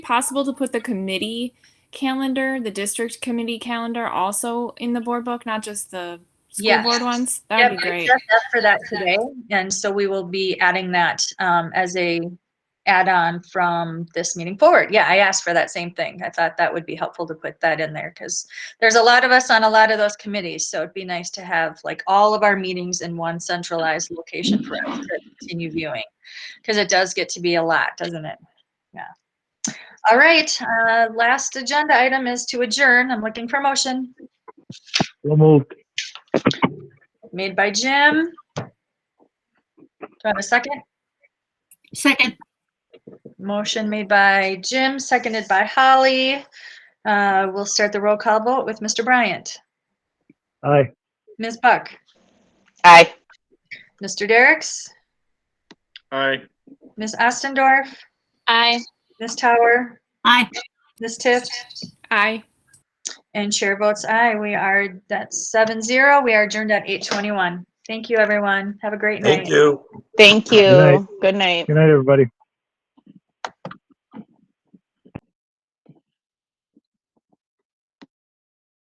possible to put the committee calendar, the district committee calendar also in the board book, not just the school Yes. board ones? That Yep, would be I great. just asked for that today, and so we will be adding that um, as a add-on from this meeting forward. Yeah, I asked for that same thing. I thought that would be helpful to put that in there because there's a lot of us on a lot of those committees, so it'd be nice to have like all of our meetings in one centralized location for us to continue viewing. Because it does get to be a lot, doesn't it? Yeah. All right, uh, last agenda item is to adjourn. I'm looking for a motion So moved. made by Jim. Do I have a second? Second, Motion made by Jim, seconded by Holly. Uh, We'll start the roll call vote with Mr. Bryant, Aye. Ms. Buck, Aye. Mr. Derricks, Aye. Ms. Ostendorf, Aye. Ms. Tower, aye. Ms. Tiff, Aye. and chair votes aye. We are, that's seven zero. We are adjourned at eight twenty-one. Thank you, everyone. Have a great night. Thank you. Thank night. you. Good night. Good night, everybody.